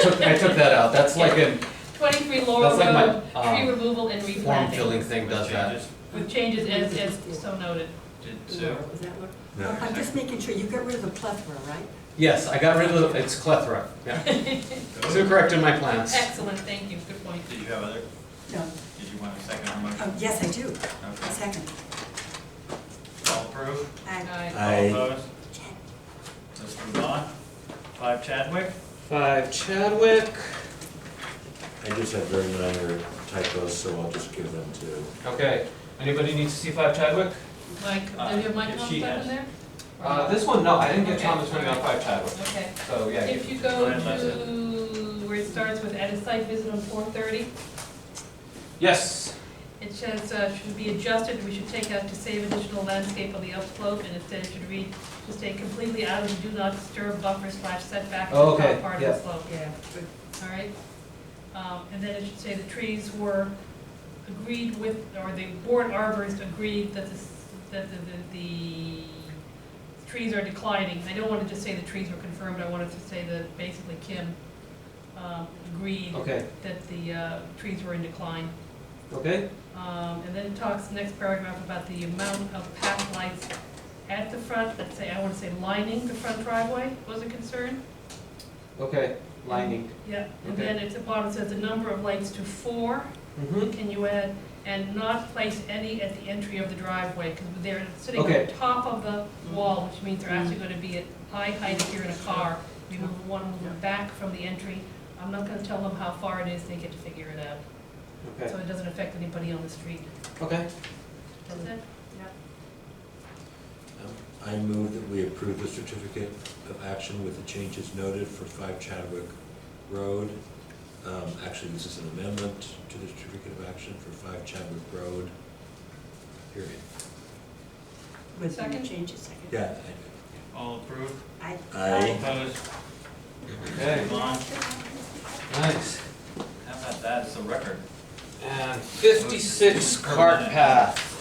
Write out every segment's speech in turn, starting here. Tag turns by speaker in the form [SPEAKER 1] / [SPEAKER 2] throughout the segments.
[SPEAKER 1] took, I took that out, that's like a
[SPEAKER 2] Twenty-three Laurel
[SPEAKER 1] That's like my,
[SPEAKER 2] Road, tree
[SPEAKER 1] um,
[SPEAKER 2] removal and
[SPEAKER 1] form
[SPEAKER 2] replanting,
[SPEAKER 1] filling thing does that.
[SPEAKER 2] with changes as, as so noted.
[SPEAKER 3] Did Sue?
[SPEAKER 4] Was that what?
[SPEAKER 5] No.
[SPEAKER 4] I'm just making sure, you got rid of the plethora, right?
[SPEAKER 1] Yes, I got rid of, the- it's plethora, yeah. Sue
[SPEAKER 3] Did
[SPEAKER 1] corrected my plans.
[SPEAKER 2] Excellent, thank you, good point.
[SPEAKER 3] you have other,
[SPEAKER 4] No,
[SPEAKER 3] did you want a second on the
[SPEAKER 4] oh,
[SPEAKER 3] motion?
[SPEAKER 4] yes, I do, a
[SPEAKER 3] Okay.
[SPEAKER 4] second.
[SPEAKER 3] All approved?
[SPEAKER 4] I,
[SPEAKER 2] Aye.
[SPEAKER 5] Aye.
[SPEAKER 3] All opposed? Let's move on. Five Chadwick?
[SPEAKER 1] Five Chadwick.
[SPEAKER 5] I just have very minor typos, so I'll just give them to.
[SPEAKER 1] Okay, anybody need to see five Chadwick?
[SPEAKER 2] Mike, do you have Mike
[SPEAKER 3] If
[SPEAKER 2] on
[SPEAKER 3] she
[SPEAKER 2] that
[SPEAKER 3] has-
[SPEAKER 2] one there?
[SPEAKER 1] Uh, this one, no, I didn't get
[SPEAKER 2] Okay.
[SPEAKER 1] Thomas Sweeney on five Chadwick,
[SPEAKER 2] Okay,
[SPEAKER 1] so yeah.
[SPEAKER 2] if you go
[SPEAKER 3] Mine has it.
[SPEAKER 2] to where it starts with at a site visit on four thirty,
[SPEAKER 1] Yes,
[SPEAKER 2] it says, uh, should be adjusted, we should take out to save additional landscape on the upslope, and instead it should read, to stay completely out of the do not disturb buffer slash setback to the
[SPEAKER 1] Oh, okay,
[SPEAKER 2] top part of the
[SPEAKER 1] yeah.
[SPEAKER 2] slope.
[SPEAKER 4] yeah,
[SPEAKER 2] All right, um, and then it should say the trees were agreed with, or the board arborist agreed that the, s- that the, the, the trees are declining. I don't want to just say the trees were confirmed, I wanted to say that basically Kim, um, agreed
[SPEAKER 1] okay,
[SPEAKER 2] that the, uh, trees were in decline.
[SPEAKER 1] okay,
[SPEAKER 2] Um, and then it talks, next paragraph, about the amount of path lights at the front, let's say, I want to say lining the front driveway was a concern.
[SPEAKER 1] okay, lining.
[SPEAKER 2] Yeah, and
[SPEAKER 1] Okay.
[SPEAKER 2] then at the bottom it says the number of lights to four,
[SPEAKER 1] Mm-hmm,
[SPEAKER 2] can you add, and not place any at the entry of the driveway, because they're sitting on
[SPEAKER 1] Okay.
[SPEAKER 2] top of the wall, which means they're actually gonna be at eye height if you're in a car. You move one, move it back from the entry, I'm not gonna tell them how far it is, they get to figure it out,
[SPEAKER 1] okay,
[SPEAKER 2] so it doesn't affect anybody on the street,
[SPEAKER 1] okay.
[SPEAKER 2] does it?
[SPEAKER 5] um, I move that we approve the certificate of action with the changes noted for five Chadwick Road. Um, actually, this is an amendment to the certificate of action for five Chadwick Road, period.
[SPEAKER 4] with the
[SPEAKER 2] Second?
[SPEAKER 4] changes, second.
[SPEAKER 5] Yeah,
[SPEAKER 3] All approved?
[SPEAKER 4] I.
[SPEAKER 5] Aye.
[SPEAKER 3] Opposed?
[SPEAKER 1] Okay,
[SPEAKER 3] Move on.
[SPEAKER 1] nice.
[SPEAKER 3] How about that, it's a record.
[SPEAKER 1] And fifty-six cart path.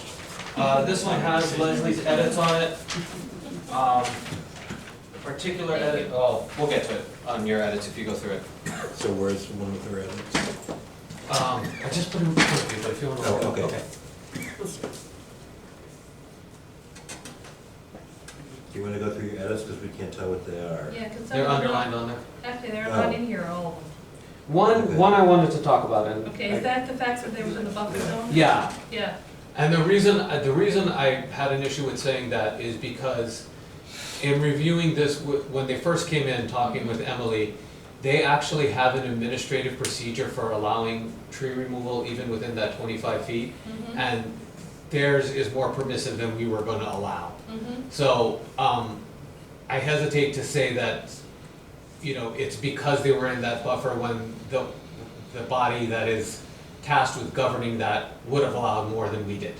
[SPEAKER 1] Uh, this one has Leslie's edits on it. Um, particular edit, oh, we'll get to it on your edits if you go through it.
[SPEAKER 5] I- so where's the one with the edits?
[SPEAKER 1] Um, I just put it in front of you, but if you wanna. look,
[SPEAKER 5] Oh, okay. Do you wanna go through your edits, because we can't tell what they are?
[SPEAKER 2] Yeah, because some
[SPEAKER 1] They're
[SPEAKER 2] of them, are
[SPEAKER 1] underlined
[SPEAKER 2] not-
[SPEAKER 1] on there.
[SPEAKER 2] actually, they're not
[SPEAKER 5] Oh.
[SPEAKER 2] in here, all of them.
[SPEAKER 1] One, one I wanted to talk about and.
[SPEAKER 2] Okay, is that the fact that they were in the buffer zone?
[SPEAKER 1] Yeah,
[SPEAKER 2] Yeah,
[SPEAKER 1] And the reason, uh, the reason I had an issue with saying that is because in reviewing this, wh- when they first came in, talking with Emily, they actually have an administrative procedure for allowing tree removal even within that twenty-five feet.
[SPEAKER 2] mhm,
[SPEAKER 1] And theirs is more permissive than we were gonna allow.
[SPEAKER 2] mhm,
[SPEAKER 1] So, um, I hesitate to say that, you know, it's because they were in that buffer when the, the body that is tasked with governing that would have allowed more than we did.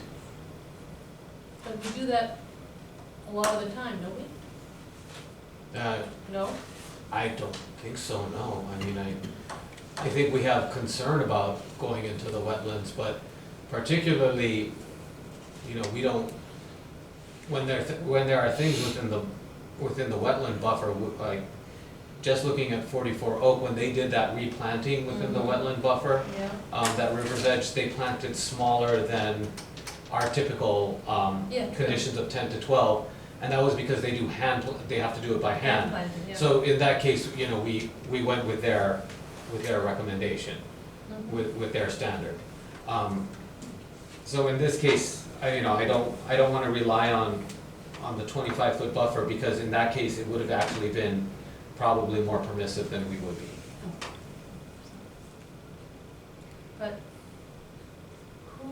[SPEAKER 2] but we do that a lot of the time, don't we?
[SPEAKER 1] Uh,
[SPEAKER 2] No?
[SPEAKER 1] I don't think so, no. I mean, I, I think we have concern about going into the wetlands, but particularly, you know, we don't, when there, when there are things within the, within the wetland buffer, w- like, just looking at forty-four Oak, when they did that replanting within the
[SPEAKER 2] Mhm.
[SPEAKER 1] wetland buffer,
[SPEAKER 2] Yeah.
[SPEAKER 1] um, that River's Edge, they planted smaller than our typical, um,
[SPEAKER 2] Yeah, true.
[SPEAKER 1] conditions of ten to twelve. And that was because they do hand, they have to do it by hand.
[SPEAKER 2] Planted, yeah.
[SPEAKER 1] So in that case, you know, we, we went with their, with their recommendation,
[SPEAKER 2] Mhm.
[SPEAKER 1] with, with their standard. Um, So in this case, I, you know, I don't, I don't wanna rely on, on the twenty-five foot buffer, because in that case, it would have actually been probably more permissive than we would be.
[SPEAKER 2] But who,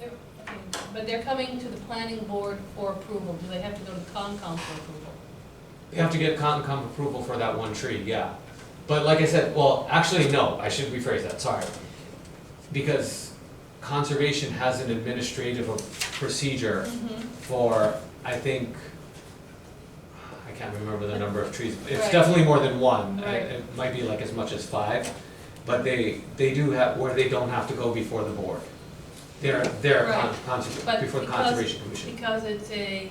[SPEAKER 2] they're, okay, but they're coming to the planning board for approval, do they have to go to the Concom for approval?
[SPEAKER 1] You have to get Concom approval for that one tree, yeah. But like I said, well, actually, no, I should rephrase that, sorry. Because conservation has an administrative procedure
[SPEAKER 2] Mm-hmm.
[SPEAKER 1] for, I think, I can't remember the number of trees, it's
[SPEAKER 2] Right.
[SPEAKER 1] definitely more than one. It-
[SPEAKER 2] Right.
[SPEAKER 1] It might be like as much as five, but they, they do have, where they don't have to go before the board. They're, they're con-
[SPEAKER 2] Right.
[SPEAKER 1] conser-
[SPEAKER 2] But
[SPEAKER 1] before the
[SPEAKER 2] because-
[SPEAKER 1] Conservation Commission.
[SPEAKER 2] Because it's a,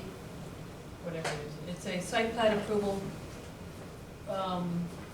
[SPEAKER 2] whatever it is, it's a site plan approval, um,